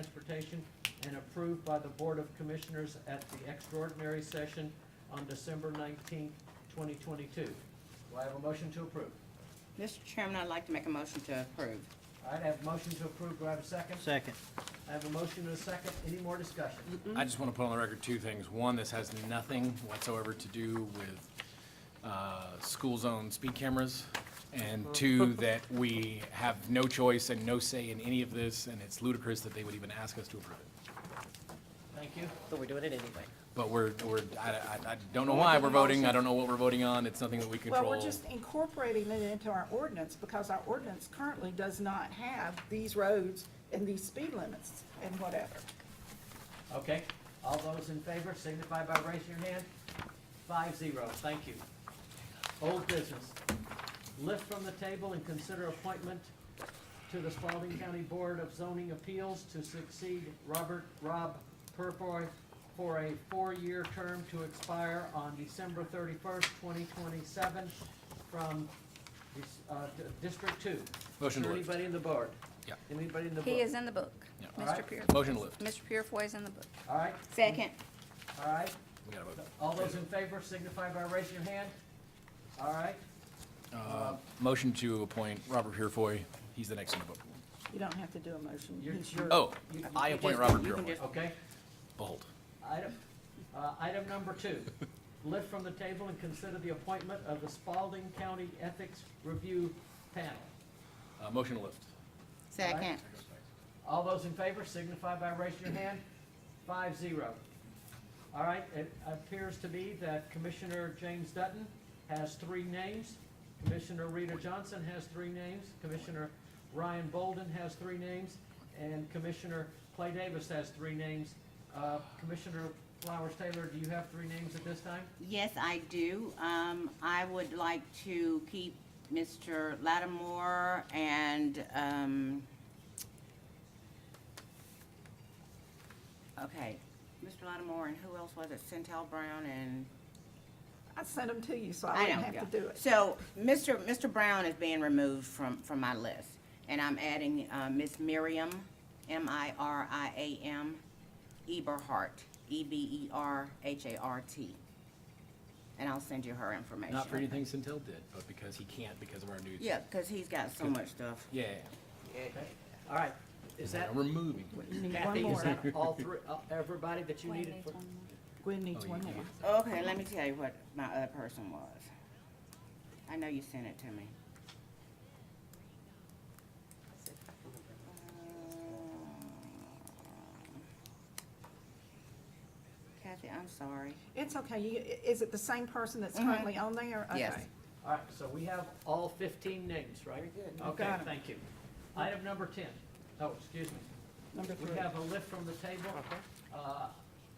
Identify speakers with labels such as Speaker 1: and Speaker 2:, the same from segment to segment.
Speaker 1: Transportation and approved by the Board of Commissioners at the extraordinary session on December nineteenth, twenty twenty-two. Do I have a motion to approve?
Speaker 2: Mr. Chairman, I'd like to make a motion to approve.
Speaker 1: All right, I have a motion to approve. Do I have a second?
Speaker 3: Second.
Speaker 1: I have a motion and a second. Any more discussion?
Speaker 4: I just want to put on the record two things. One, this has nothing whatsoever to do with uh, school zone speed cameras.
Speaker 2: Mm.
Speaker 4: And two, that we have no choice and no say in any of this, and it's ludicrous that they would even ask us to approve it.
Speaker 1: Thank you.
Speaker 2: But we're doing it anyway.
Speaker 4: But we're, we're, I, I- I don't know why we're voting, I don't know what we're voting on, it's nothing that we control.
Speaker 5: Well, we're just incorporating it into our ordinance because our ordinance currently does not have these roads and these speed limits and whatever.
Speaker 1: Okay, all those in favor signify by raising your hand. Five zero, thank you. Old business, lift from the table and consider appointment to the Spalding County Board of Zoning Appeals to succeed Robert Rob Purfoy for a four-year term to expire on December thirty-first, twenty twenty-seven from, dis- uh, D- District Two.
Speaker 4: Motion to lift.
Speaker 1: Anybody in the board?
Speaker 4: Yeah.
Speaker 1: Anybody in the board?
Speaker 6: He is in the book.
Speaker 4: Yeah.
Speaker 6: Mr.
Speaker 1: Alright.
Speaker 6: Pure,
Speaker 4: Motion to lift.
Speaker 6: Mr. Purefoy is in the book.
Speaker 1: All right,
Speaker 6: Second.
Speaker 1: all right.
Speaker 4: We gotta vote.
Speaker 1: All those in favor signify by raising your hand. All right,
Speaker 4: Uh, Motion to appoint Robert Purefoy, he's the next in the book.
Speaker 5: You don't have to do a motion.
Speaker 1: You're-
Speaker 5: He's
Speaker 1: you're-
Speaker 5: your-
Speaker 4: Oh, I appoint Robert
Speaker 2: You can
Speaker 4: Purefoy.
Speaker 2: just-
Speaker 1: okay.
Speaker 4: Behold.
Speaker 1: Item, uh, item number two, lift from the table and consider the appointment of the Spalding County Ethics Review Panel.
Speaker 4: Uh, Motion to lift.
Speaker 2: Second.
Speaker 1: All those in favor signify by raising your hand. Five zero. All right, it appears to be that Commissioner James Dutton has three names. Commissioner Rita Johnson has three names. Commissioner Ryan Bolden has three names. And Commissioner Clay Davis has three names. Uh, Commissioner Flowers Taylor, do you have three names at this time?
Speaker 2: Yes, I do. Um, I would like to keep Mr. Lattimore and, um, okay, Mr. Lattimore and who else was it? Centel Brown and?
Speaker 5: I sent them to you, so I
Speaker 2: I
Speaker 5: wouldn't
Speaker 2: don't
Speaker 5: have to do it.
Speaker 2: So, Mr. Mr. Brown is being removed from, from my list, and I'm adding, uh, Ms. Miriam, M-I-R-I-A-M, Eberhart, E E-B-E-R-H-A-R-T. And I'll send you her information.
Speaker 4: Not for anything Centel did, but because he can't because of our new.
Speaker 2: Yeah, cause he's got so much stuff.
Speaker 4: Yeah.
Speaker 1: Okay. All right, is that,
Speaker 4: We're moving.
Speaker 5: You need one
Speaker 1: Kathy, is
Speaker 5: more.
Speaker 1: that all three, uh, everybody that you needed for?
Speaker 5: Gwen needs
Speaker 1: Oh,
Speaker 5: one more.
Speaker 2: Okay, let me tell you what my other person was. I know you sent it to me. Uh, Kathy, I'm sorry.
Speaker 5: It's okay. You, i- is it the same person that's
Speaker 2: Mhm.
Speaker 1: Mm-hmm.
Speaker 5: currently on there?
Speaker 2: Yes.
Speaker 5: Okay.
Speaker 1: All right, so we have all fifteen names, right? Okay,
Speaker 5: Got 'em.
Speaker 1: thank you. Item number ten. Oh, excuse me.
Speaker 5: Number
Speaker 1: We
Speaker 5: three.
Speaker 1: have a lift from the table. Uh,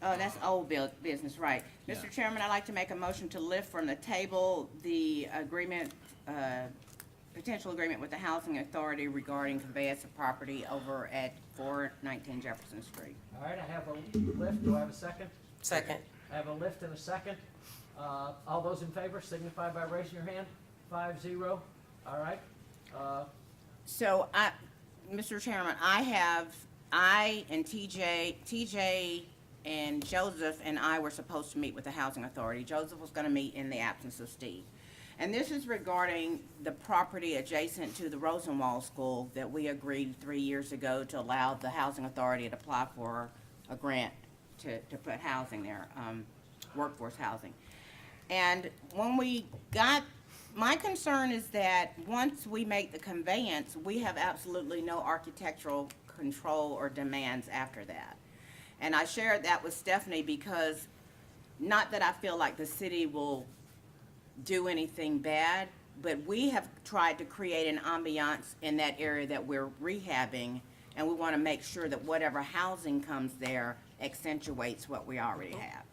Speaker 2: Oh, that's old bill, business, right.
Speaker 4: Yeah.
Speaker 2: Mr. Chairman, I'd like to make a motion to lift from the table the agreement, uh, potential agreement with the Housing Authority regarding conveyance of property over at four nineteen Jefferson Street.
Speaker 1: All right, I have a lift. Do I have a second?
Speaker 7: Second.
Speaker 1: I have a lift and a second. Uh, All those in favor signify by raising your hand. Five zero. All right. Uh,
Speaker 2: So I, Mr. Chairman, I have, I and TJ, TJ and Joseph and I were supposed to meet with the Housing Authority. Joseph was gonna meet in the absence of Steve. And this is regarding the property adjacent to the Rosenwald School that we agreed three years ago to allow the Housing Authority to apply for a grant to, to put housing there, um, workforce housing. And when we got, my concern is that once we make the conveyance, we have absolutely no architectural control or demands after that. And I shared that with Stephanie because, not that I feel like the city will do anything bad, but we have tried to create an ambiance in that area that we're rehabbing, and we want to make sure that whatever housing comes there accentuates what we already have.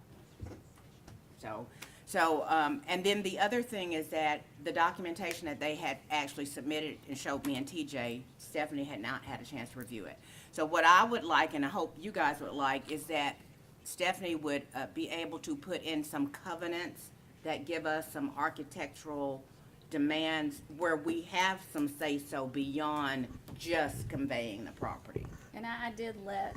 Speaker 2: So, so, um, and then the other thing is that the documentation that they had actually submitted and showed me and TJ, Stephanie had not had a chance to review it. So what I would like, and I hope you guys would like, is that Stephanie would, uh, be able to put in some covenants that give us some architectural demands where we have some say-so beyond just conveying the property.
Speaker 6: And I, I did let